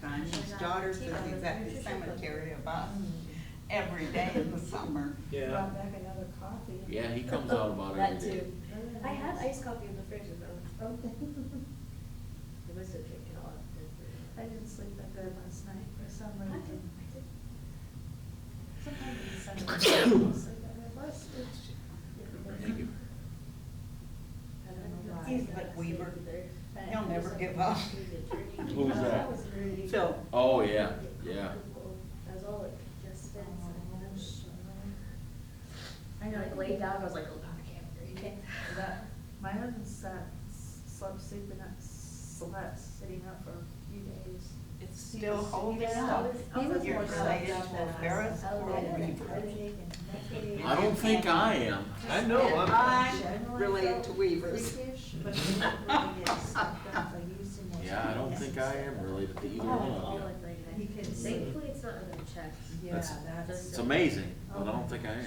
time. His daughter says he's at the Mm-hmm. cemetery about every day in the summer. Yeah. Brought back another coffee. Yeah, he comes out about That every day. too. Very I had nice. iced coffee in the fridge, but Okay. I must have drank oh, it all. up. I didn't sleep that good last night for some reason. Sometimes it's Sunday, I don't sleep that well. It's- it's- Thank you. I don't know why. He's I like sleep Weaver. either, but He'll never there's give something up. between the journey. Who's Oh, that? was Rudy. Phil. Oh, yeah, yeah. I was all like, just been. Oh, sure. I know, like laid down, I was like, oh, God, I can't breathe. That- My husband sat, slept sleeping up, slept sitting up for a few days. It's still holding Yeah. up. I was- I was You're more related slept to up a than Ferris I was. or a I was Weaver. headache and neck ache. I don't think I am. I know, I'm, I'm related to Weavers. Freakish, But but he really is sometimes I used him once. Yeah, I don't think I am related to either all like one of you. like You that. can see. Thankfully, it's not under the chest. Yeah, That's- that's. It's amazing, but I don't think I am.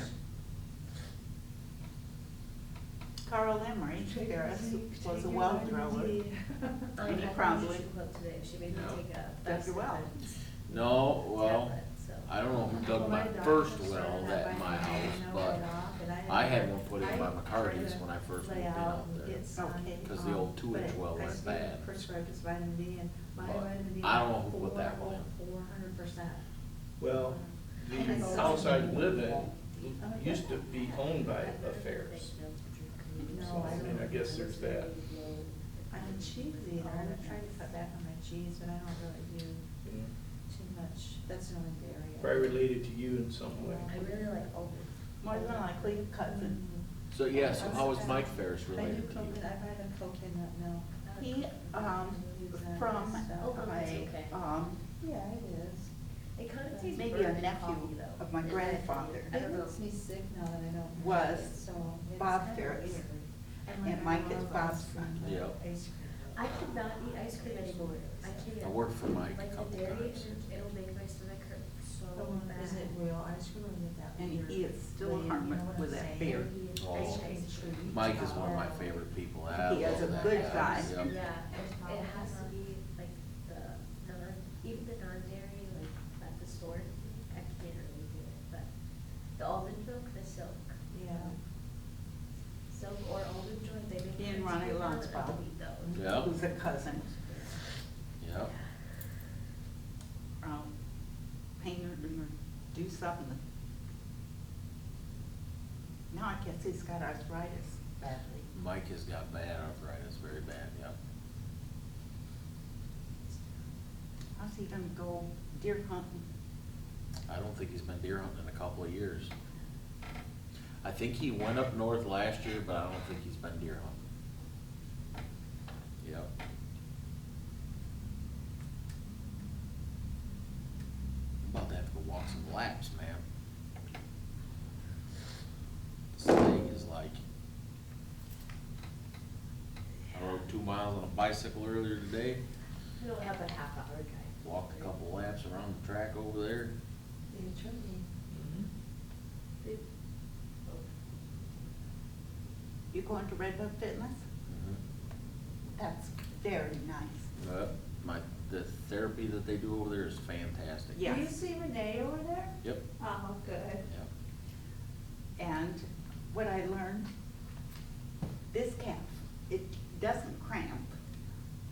Carl Oh, Emery Ferris was a well driller. Oh, I had a Probably. nutrition club today, she made me No. take a. Does your well. No, well, tablet, so. I don't know who dug my Well, my first doctor well said that that in my I house, had no but right off, and I had I to had one put in by try to McCarty's when I first lay moved in out out and there. get sun, Okay. 'Cause the um, old two-inch but well I went still bad. Prescribed as vitamin D and my But vitamin D. I don't know who put that one in. Four hundred percent. well, the house I live in used to be owned by affairs. No, I I mean, I don't. guess there's that. I'm a cheese eater, I've tried to cut back on my cheese, but I don't really do you know, too much, that's the only dairy. I- Probably related to you in some way. I really like all the. More than likely cousin. So, yeah, so how is Mike Ferris I do related to you? coconut, I've had a coconut milk. He, um, from Oh, that's okay. a, um, Yeah, it is. It kind of tastes. Maybe a burnt nephew coffee, though. of my And I- grandfather. I don't know. It makes me sick now that I don't. have Was it, so it's Bob kinda Ferris. weird. And Mike is love Bob's ice cream, friend. but Yep. ice cream. I could not eat ice cream anymore. I can't. I worked for Mike a Like couple the dairy, times. and it'll make my stomach hurt so The one- bad. Is it real ice cream or is it that? And he weird is still wave, you harming know what with I'm that saying? beer. Oh. Ice cream treat. Mike is one of my favorite people. I He is love a that good guy. guy. Yep. Yeah, it has to be like the non, even the non-dairy, like at the store, I can't really do it, but the almond milk, the silk. Yeah. Silk or almond joy, they make. Me and ice Ronnie cream out of Lunsford. wheat though. Yeah. who's a cousin Yep. from um, Painter, or do something. Now I guess he's got arthritis badly. Mike has got bad arthritis, very bad, yep. How's he gonna go deer hunting? I don't think he's been deer hunting in a couple of years. I think he went up north last year, but I don't think he's been deer hunting. Yep. I'm About to have to go walk some laps, man. This thing is like, I rode two miles on a bicycle earlier today, We don't have a half hour drive. walked a couple laps around the track over there. The attorney. Mm-hmm. They- oh, You going to Red Hook Fitness? Mhm. That's very nice. Uh, my, the therapy that they do over there is fantastic. Yeah. Do you see Renee over there? Yep, Oh, good. yep. And what I learned, this calf, it doesn't cramp,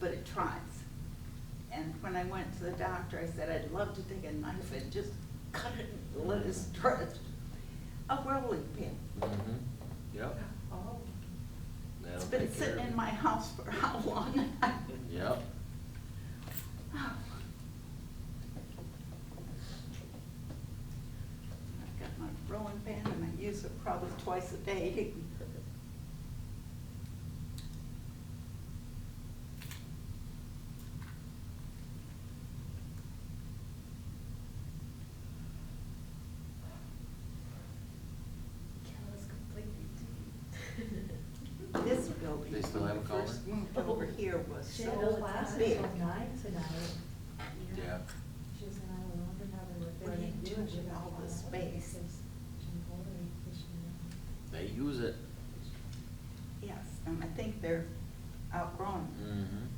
but it tries. And when I went to the doctor, I said, I'd love to take a knife and just cut it and let it stretch. A rolling pin. Mm-hmm. Yep. Oh. That'll It's been take care sitting of in it. my house for how long? Yep. I've got my rolling pin and I use it probably twice a day. Cal is completely deep. This building, They still when have we a collar? first moved over here was She so had a class big. until nine tonight. Yeah. She said, I wonder how they were What do you doing do with all the space? They use it. Yes, and I think they're outgrown. Mm-hmm.